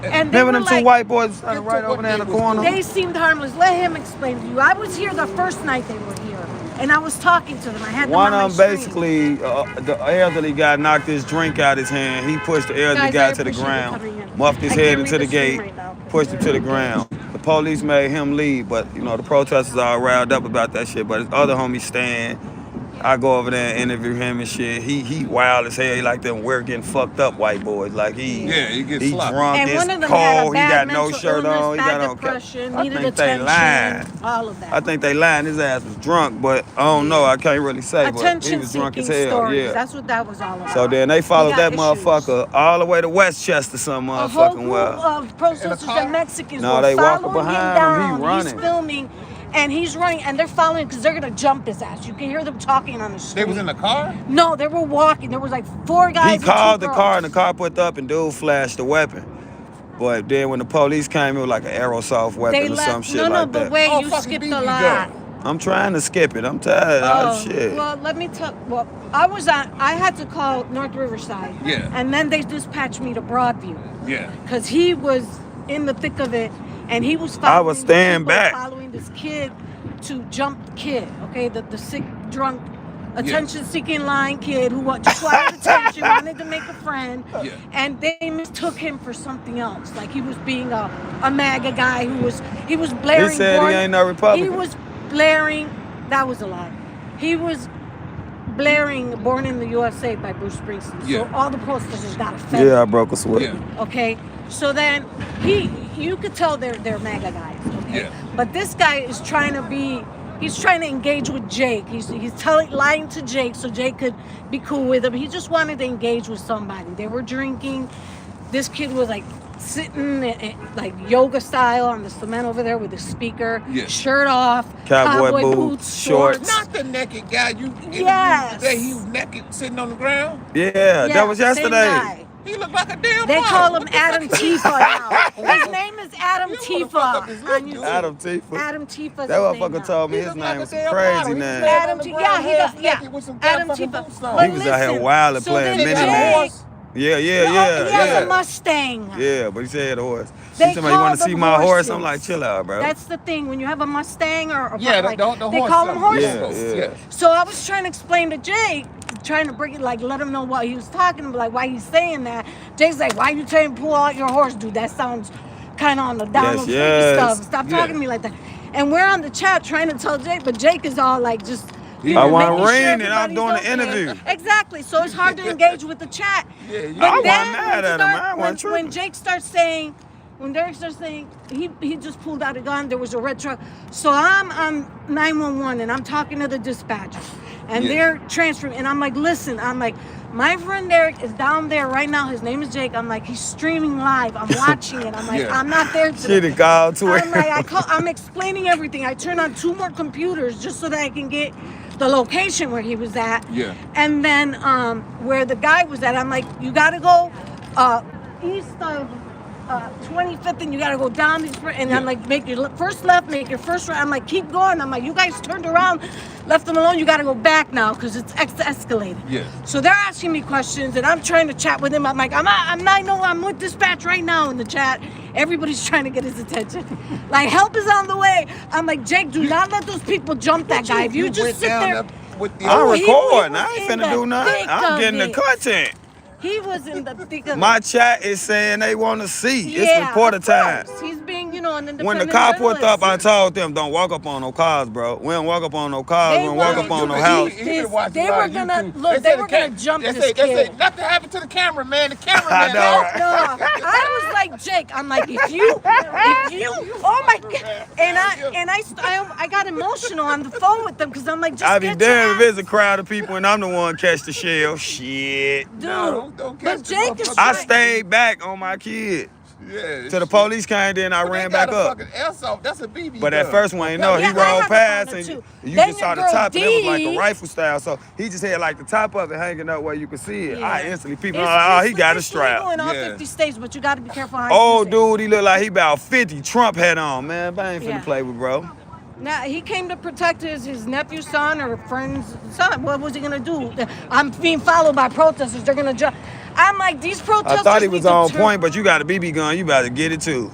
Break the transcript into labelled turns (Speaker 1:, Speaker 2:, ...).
Speaker 1: And they
Speaker 2: There were
Speaker 1: were
Speaker 2: them two
Speaker 1: like,
Speaker 2: white boys standing
Speaker 3: Into
Speaker 2: right
Speaker 3: what
Speaker 2: over there in the
Speaker 3: they was doing.
Speaker 2: corner.
Speaker 1: They seemed harmless. Let him explain to you. I was here the first night they were here, and I was talking to them. I had them
Speaker 2: One
Speaker 1: on
Speaker 2: of
Speaker 1: my
Speaker 2: them
Speaker 1: screen.
Speaker 2: basically, uh, the elderly guy knocked his drink out his hand. He pushed the elderly
Speaker 1: Guys,
Speaker 2: guy
Speaker 1: I
Speaker 2: to the
Speaker 1: appreciate you coming
Speaker 2: ground,
Speaker 1: in.
Speaker 2: muffed his
Speaker 1: I
Speaker 2: head
Speaker 1: can't
Speaker 2: into
Speaker 1: read
Speaker 2: the
Speaker 1: the screen
Speaker 2: gate,
Speaker 1: right now 'cause
Speaker 2: pushed him
Speaker 1: they're-
Speaker 2: to the ground. The police made him leave, but you know the protesters are all riled up about that shit. But his other homie Stan, I go over there and interview him and shit. He he wild as hell. He like them we're getting fucked up white boys. Like he
Speaker 3: Yeah, he gets sloppy.
Speaker 2: drunk,
Speaker 1: and
Speaker 2: it's
Speaker 1: one of them had a
Speaker 2: cold.
Speaker 1: bad
Speaker 2: he got no
Speaker 1: mental
Speaker 2: shirt
Speaker 1: illness,
Speaker 2: on. He
Speaker 1: bad
Speaker 2: got on.
Speaker 1: depression,
Speaker 2: I
Speaker 1: needed
Speaker 2: think they
Speaker 1: attention,
Speaker 2: lying.
Speaker 1: All of that.
Speaker 2: I think they lying. His ass was drunk, but I don't know. I can't really say. but he
Speaker 1: attention
Speaker 2: was drunk
Speaker 1: seeking
Speaker 2: as hell.
Speaker 1: stories.
Speaker 2: Yeah.
Speaker 1: That's what that was all about.
Speaker 2: so then they followed
Speaker 1: got
Speaker 2: that
Speaker 1: issues.
Speaker 2: motherfucker all the way to Westchester, some
Speaker 1: A whole
Speaker 2: motherfucking
Speaker 1: group
Speaker 2: well.
Speaker 1: of protesters
Speaker 3: car?
Speaker 1: and Mexicans
Speaker 2: No,
Speaker 1: were
Speaker 2: they walking
Speaker 1: following
Speaker 2: behind
Speaker 1: him
Speaker 2: him. He
Speaker 1: down.
Speaker 2: running.
Speaker 1: He's filming, and he's running, and they're following because they're gonna jump his ass. You can hear them talking on the street.
Speaker 3: They was in the car?
Speaker 1: No, they were walking. There was like four guys.
Speaker 2: He
Speaker 1: and two
Speaker 2: called the
Speaker 1: girls.
Speaker 2: car, and the car put up, and dude flashed the weapon. But then when the police came, it was like an aerosoft weapon
Speaker 1: They
Speaker 2: or
Speaker 1: left.
Speaker 2: some shit
Speaker 1: no, no,
Speaker 2: like
Speaker 1: but
Speaker 2: that.
Speaker 1: wait,
Speaker 3: Oh,
Speaker 1: you
Speaker 3: fucking
Speaker 1: skipped
Speaker 3: BB
Speaker 1: a lot.
Speaker 3: gun.
Speaker 2: I'm trying to skip it. I'm tired. Oh, shit.
Speaker 1: Well, let me tell. Well, I was on. I had to call North Riverside.
Speaker 3: Yeah.
Speaker 1: And then they dispatched me to Broadview.
Speaker 3: Yeah.
Speaker 1: because he was in the thick of it and he was following
Speaker 2: I was staying
Speaker 1: people,
Speaker 2: back.
Speaker 1: following this kid to jump the kid okay the, the sick drunk attention seeking lying kid who wanted just wanted attention wanted to make a friend
Speaker 3: Yeah.
Speaker 1: and they mistook him for something else like he was being a, a maga guy who was he was blaring
Speaker 2: said he
Speaker 1: warning-
Speaker 2: ain't no Republican.
Speaker 1: he was blaring that was a lie he was blaring born in the usa by bruce springsteen
Speaker 3: Yeah.
Speaker 1: so all the protesters got offended
Speaker 2: yeah, I broke a sweat.
Speaker 3: Yeah.
Speaker 1: okay so then he you could tell they're they're mega guys okay
Speaker 3: Yeah.
Speaker 1: but this guy is trying to be he's trying to engage with jake he's he's telling lying to jake so jake could be cool with him he just wanted to engage with somebody they were drinking this kid was like sitting eh, eh, like yoga style on the cement over there with the speaker
Speaker 3: Yeah.
Speaker 1: shirt off
Speaker 2: Cowboy boots, shorts.
Speaker 3: Not the naked guy. You interviewed
Speaker 1: Yes.
Speaker 3: today. He was naked sitting on the ground.
Speaker 2: Yeah, that
Speaker 1: Yeah,
Speaker 2: was
Speaker 1: same
Speaker 2: yesterday.
Speaker 1: guy.
Speaker 3: He looked like a damn
Speaker 1: They
Speaker 3: model.
Speaker 1: call him
Speaker 3: What the
Speaker 1: Adam
Speaker 3: fuck?
Speaker 1: Tifa now. His name is Adam
Speaker 3: You wanna fuck
Speaker 1: Tifa
Speaker 3: up his
Speaker 1: on
Speaker 3: look,
Speaker 1: YouTube.
Speaker 3: dude.
Speaker 2: Adam Tifa.
Speaker 1: Adam Tifa's
Speaker 2: That
Speaker 1: his name
Speaker 2: motherfucker
Speaker 1: now.
Speaker 2: told me
Speaker 3: He
Speaker 2: his
Speaker 3: looked like
Speaker 2: name
Speaker 3: a
Speaker 2: was
Speaker 3: damn
Speaker 2: crazy
Speaker 3: model. He
Speaker 2: name.
Speaker 3: said-
Speaker 1: Adam
Speaker 3: on the
Speaker 1: Tifa.
Speaker 3: ground,
Speaker 1: Yeah, he
Speaker 3: half
Speaker 1: got yeah.
Speaker 3: naked with some
Speaker 1: Adam
Speaker 3: goddamn
Speaker 1: Tifa.
Speaker 3: boots on.
Speaker 1: But
Speaker 2: He was out here
Speaker 1: listen,
Speaker 2: wild and
Speaker 1: so then
Speaker 2: playing mini
Speaker 1: Jake-
Speaker 2: man.
Speaker 3: Horse.
Speaker 2: Yeah,
Speaker 1: Oh, yeah,
Speaker 2: yeah, yeah.
Speaker 1: he has
Speaker 2: yeah.
Speaker 1: a Mustang.
Speaker 2: Yeah, but he said he had a horse. She
Speaker 1: They
Speaker 2: told me, you
Speaker 1: call
Speaker 2: want to
Speaker 1: them
Speaker 2: see my horse? I'm
Speaker 1: horses.
Speaker 2: like, chill out, bro.
Speaker 1: That's the thing when you have a Mustang or, or
Speaker 3: Yeah, the,
Speaker 1: like,
Speaker 3: the, the
Speaker 1: they
Speaker 3: horse
Speaker 1: call them
Speaker 3: something.
Speaker 1: horses.
Speaker 2: Yeah, yeah.
Speaker 1: So I was trying to explain to Jake, trying to bring it like let him know what he was talking about, like why he's saying that. Jake's like, why you trying to pull out your horse, dude? That sounds kind of on the down
Speaker 2: Yes,
Speaker 1: low freaky
Speaker 2: yes.
Speaker 1: stuff. Stop
Speaker 3: Yeah.
Speaker 1: talking to me like that. And we're on the chat trying to tell Jake, but Jake is all like just. you
Speaker 3: I
Speaker 1: know,
Speaker 2: want
Speaker 1: making sure
Speaker 2: rain and I'm
Speaker 1: everybody's
Speaker 2: doing the
Speaker 1: okay.
Speaker 2: interview.
Speaker 1: Exactly. So it's hard to engage with the chat.
Speaker 3: Yeah, you-
Speaker 1: but
Speaker 3: I wasn't
Speaker 1: then
Speaker 2: mad
Speaker 1: when
Speaker 2: at him.
Speaker 1: start-
Speaker 2: I wasn't
Speaker 1: when-
Speaker 2: tripping.
Speaker 1: when Jake starts saying, when Derek starts saying, he, he just pulled out a gun. There was a red truck. So I'm on 911 and I'm talking to the dispatcher and
Speaker 3: Yeah.
Speaker 1: they're transferring. And I'm like, listen, I'm like, my friend Derek is down there right now. His name is Jake. I'm like, he's streaming live. I'm watching it. I'm like,
Speaker 3: Yeah.
Speaker 1: I'm not there
Speaker 2: She
Speaker 1: today.
Speaker 2: done called to
Speaker 1: I'm like, I
Speaker 2: her.
Speaker 1: call, I'm explaining everything. I turn on two more computers just so that I can get the location where he was at.
Speaker 3: Yeah.
Speaker 1: And then um, where the guy was at, I'm like, you gotta go uh, east of uh, 25th and you gotta go down these. fir- And I'm
Speaker 3: Yeah.
Speaker 1: like, make your le- first left, make your first right. I'm like, keep going. I'm like, you guys turned around, left them alone. You gotta go back now because it's ex- escalated.
Speaker 3: Yeah.
Speaker 1: So they're asking me questions and I'm trying to chat with him. I'm like, I'm not, I'm not, no, I'm with dispatch right now in the chat. Everybody's trying to get his attention. Like, help is on the way. I'm like, Jake, do not let those people jump that guy. If you
Speaker 3: went
Speaker 1: just sit
Speaker 3: down
Speaker 1: there,
Speaker 3: there with the
Speaker 2: I'm
Speaker 1: Oh, he- he was
Speaker 2: recording. I ain't
Speaker 1: in
Speaker 2: finna
Speaker 1: the
Speaker 2: do nothing.
Speaker 1: thick
Speaker 2: I'm
Speaker 1: of
Speaker 2: getting the
Speaker 1: it.
Speaker 2: content.
Speaker 1: he was in the thick of
Speaker 2: My
Speaker 1: it.
Speaker 2: chat is saying they want to see.
Speaker 1: Yeah,
Speaker 2: it's reporter
Speaker 1: of
Speaker 2: time.
Speaker 1: course. He's being, you know, an independent
Speaker 2: When the car pulled up, I
Speaker 1: journalist.
Speaker 2: told them, don't walk up on no cars, bro. We don't walk up on no cars.
Speaker 1: They
Speaker 2: We don't walk
Speaker 1: wanted
Speaker 2: up on
Speaker 1: to
Speaker 2: no
Speaker 1: be-
Speaker 2: house.
Speaker 1: They were gonna- look, they were gonna jump
Speaker 3: they
Speaker 1: this
Speaker 3: say, They say,
Speaker 1: kid.
Speaker 3: nothing happened to the camera, man. The camera
Speaker 2: I
Speaker 3: man.
Speaker 2: know,
Speaker 3: out."
Speaker 2: right?
Speaker 1: No, I was like Jake. I'm like, if you, if you, oh my god, and I and I, st- I, I got emotional on the phone with them because I'm like, just
Speaker 2: I be
Speaker 1: get your
Speaker 2: damned if
Speaker 1: ass-
Speaker 2: it's a crowd of people and I'm the one catch the shell. Shit.
Speaker 1: dude.
Speaker 3: No, don't- don't
Speaker 1: but
Speaker 3: catch the
Speaker 1: Jake is
Speaker 3: motherfucker.
Speaker 2: I
Speaker 1: trying-
Speaker 2: stayed back on my kid.
Speaker 3: Yeah.
Speaker 2: Till the police came, then I
Speaker 3: But they
Speaker 2: ran
Speaker 3: got
Speaker 2: back
Speaker 3: a
Speaker 2: up.
Speaker 3: fucking airsoft. That's a BB.
Speaker 2: But that
Speaker 3: gun.
Speaker 2: first one, you know, he
Speaker 1: Yeah, I
Speaker 2: rolled
Speaker 1: have a
Speaker 2: past
Speaker 1: partner
Speaker 2: and you
Speaker 1: too.
Speaker 2: you
Speaker 1: Then
Speaker 2: just
Speaker 1: your
Speaker 2: saw the
Speaker 1: girl
Speaker 2: top and it was like a
Speaker 1: Dee.
Speaker 2: rifle style. So he just had like the top of it hanging up where you could see it.
Speaker 1: Yeah.
Speaker 2: I instantly peeped.
Speaker 1: It's-
Speaker 2: Oh,
Speaker 1: it's
Speaker 2: he got a
Speaker 1: it's legal
Speaker 2: strap.
Speaker 1: in all
Speaker 3: Yeah.
Speaker 1: 50 states, but you got to be careful how you
Speaker 2: Oh,
Speaker 1: use it.
Speaker 2: dude, he looked like he about 50. Trump hat on, man. I ain't finna
Speaker 1: Yeah.
Speaker 2: play with bro.
Speaker 1: Now he came to protect his, his nephew's son or friend's son. What was he gonna do? I'm being followed by protesters. They're gonna jump. I'm like, these protesters.
Speaker 2: I thought he
Speaker 1: need
Speaker 2: was
Speaker 1: to
Speaker 2: on
Speaker 1: turn-
Speaker 2: point, but you got a BB gun. You better get it too.